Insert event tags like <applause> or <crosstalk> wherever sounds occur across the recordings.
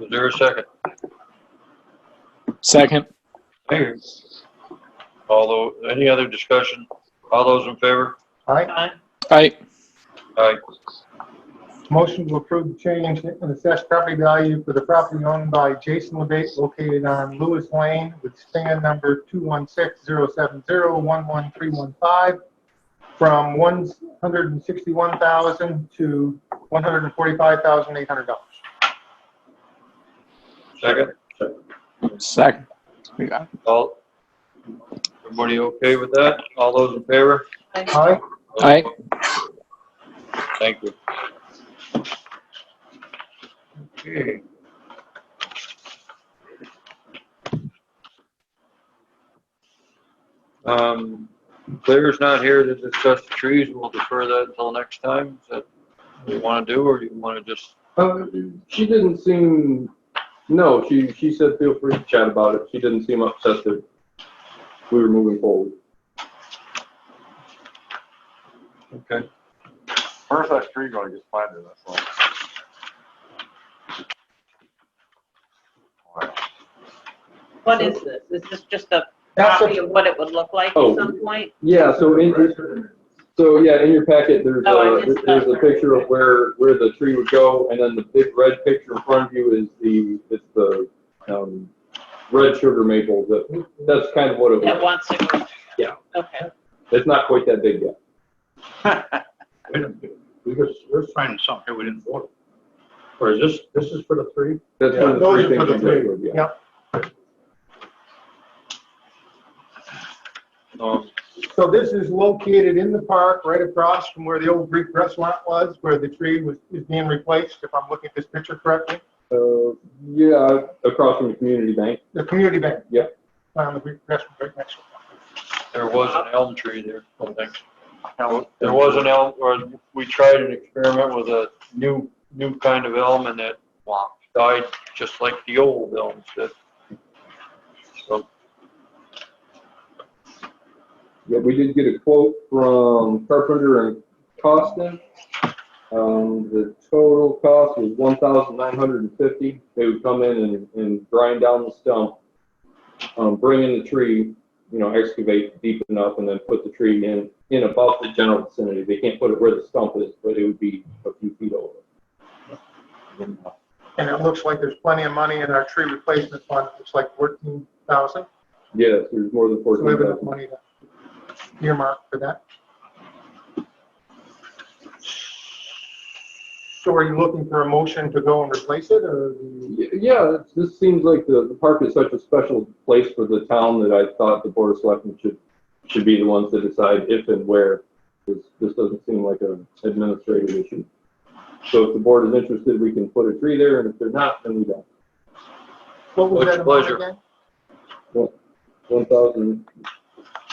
Is there a second? Second. Although, any other discussion? All those in favor? Aye. Aye. Aye. Motion to approve change in assessed property value for the property owned by Jason Lebate located on Lewis Lane with stand number 216-070-11315 from 161000 to $145,800. Second? Second. We got it. All, everybody okay with that? All those in favor? Aye. Aye. Thank you. Okay. Um, Claire's not here to discuss the trees. We'll defer that until next time. Is that what you want to do, or do you want to just, Uh, she didn't seem, no, she, she said feel free to chat about it. She didn't seem upset that we were moving forward. okay? Where's that tree going? Just find it, that's all. What is this? Is this just a That's a- copy of what it would look like Oh. at some point? Yeah, so in, in- so yeah, in your packet, there's Oh, I a, missed that there's a part. picture of where, where the tree would go, and then the big red picture in front of you is the, it's the, um, red sugar maple, that, that's kind of what it That was. wants to? Yeah. Okay. It's not quite that big yet. Wait a minute, we just, we're signing something here we didn't vote. Or is this, this is for the three? That's one Yeah, of the those are three for things. the I'm three. working with, yeah. Yeah. Um, So this is located in the park, right across from where the old Greek restaurant was, where the tree was, is being replaced, if I'm looking at this picture correctly. Uh, yeah, across from the community bank. The community bank. Yeah. On the Greek restaurant right next to it. There was an elm tree there, I think. There was an elm, or we tried an experiment with a new, new kind of elm and it died just like the old elms did. So, Yeah, we did get a quote from Carpenter and Costa. Um, the total cost was one thousand nine hundred and fifty. They would come in and, and grind down the stump, um, bring in the tree, you know, excavate deep enough and then put the tree in, in about the general vicinity. They can't put it where the stump is, but it would be a few feet over. And it looks like there's plenty of money in our tree replacement fund, it's like fourteen thousand. Yes, there's more than So we fourteen have enough thousand. money to earmark for that. So are you looking for a motion to go and replace it, or? do you- Y- Yeah, it's- this seems like the, the park is such a special place for the town that I thought the board of selectmen should, should be the ones to decide if and where. This, this doesn't seem like an administrative issue. So if the board is interested, we can put a tree there, and if they're not, then we don't. What was With that amount pleasure. again? One thousand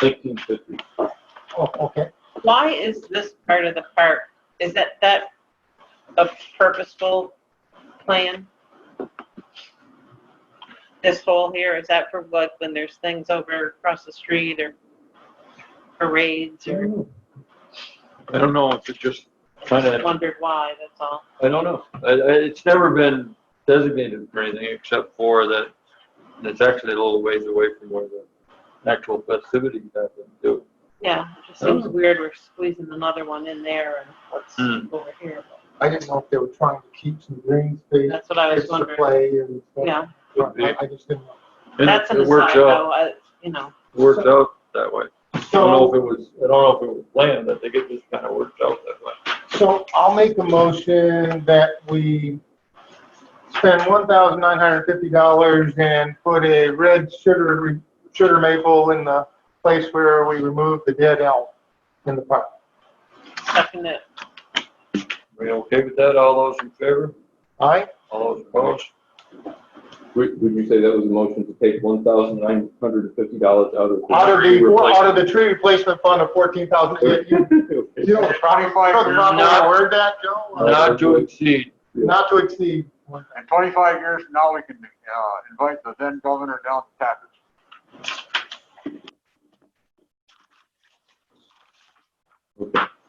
eighteen fifty. Oh, okay. Why is this part of the park, is that, that a purposeful plan? This hole here, is that for what, when there's things over across the street or parades or I don't know if it just kind of, wondered why, that's all? I don't know. I, I, it's never been designated for anything except for that it's actually a little ways away from where the actual festivities happen too. Yeah, it just seems weird we're squeezing another one in there and what's Hmm. over here. I didn't know if they were trying to keep some green space, That's what I was kids to wondering, play and stuff. yeah. I I just didn't know. And That's an It works aside, out, though, I, you know, It works out that way. I don't know if So, it was, I don't know if it was planned, but I think it just kind of worked out that way. so I'll make a motion that we spend one thousand nine hundred fifty dollars and put a red sugar, sugar maple in the place where we removed the dead elm in the park. second it, Are you okay with that? All those in favor? All right? All those opposed? Would, would you say that was a motion to take one thousand nine hundred and fifty dollars out of? Out of the, replacement? out of the tree replacement fund of fourteen <laughs> thousand. You you know, the <laughs> Twenty-five proper years, way from I now- word that, Joe? Not to exceed. Not to exceed. in twenty-five years from now, we can, uh, invite the then governor down to Tappan. Okay.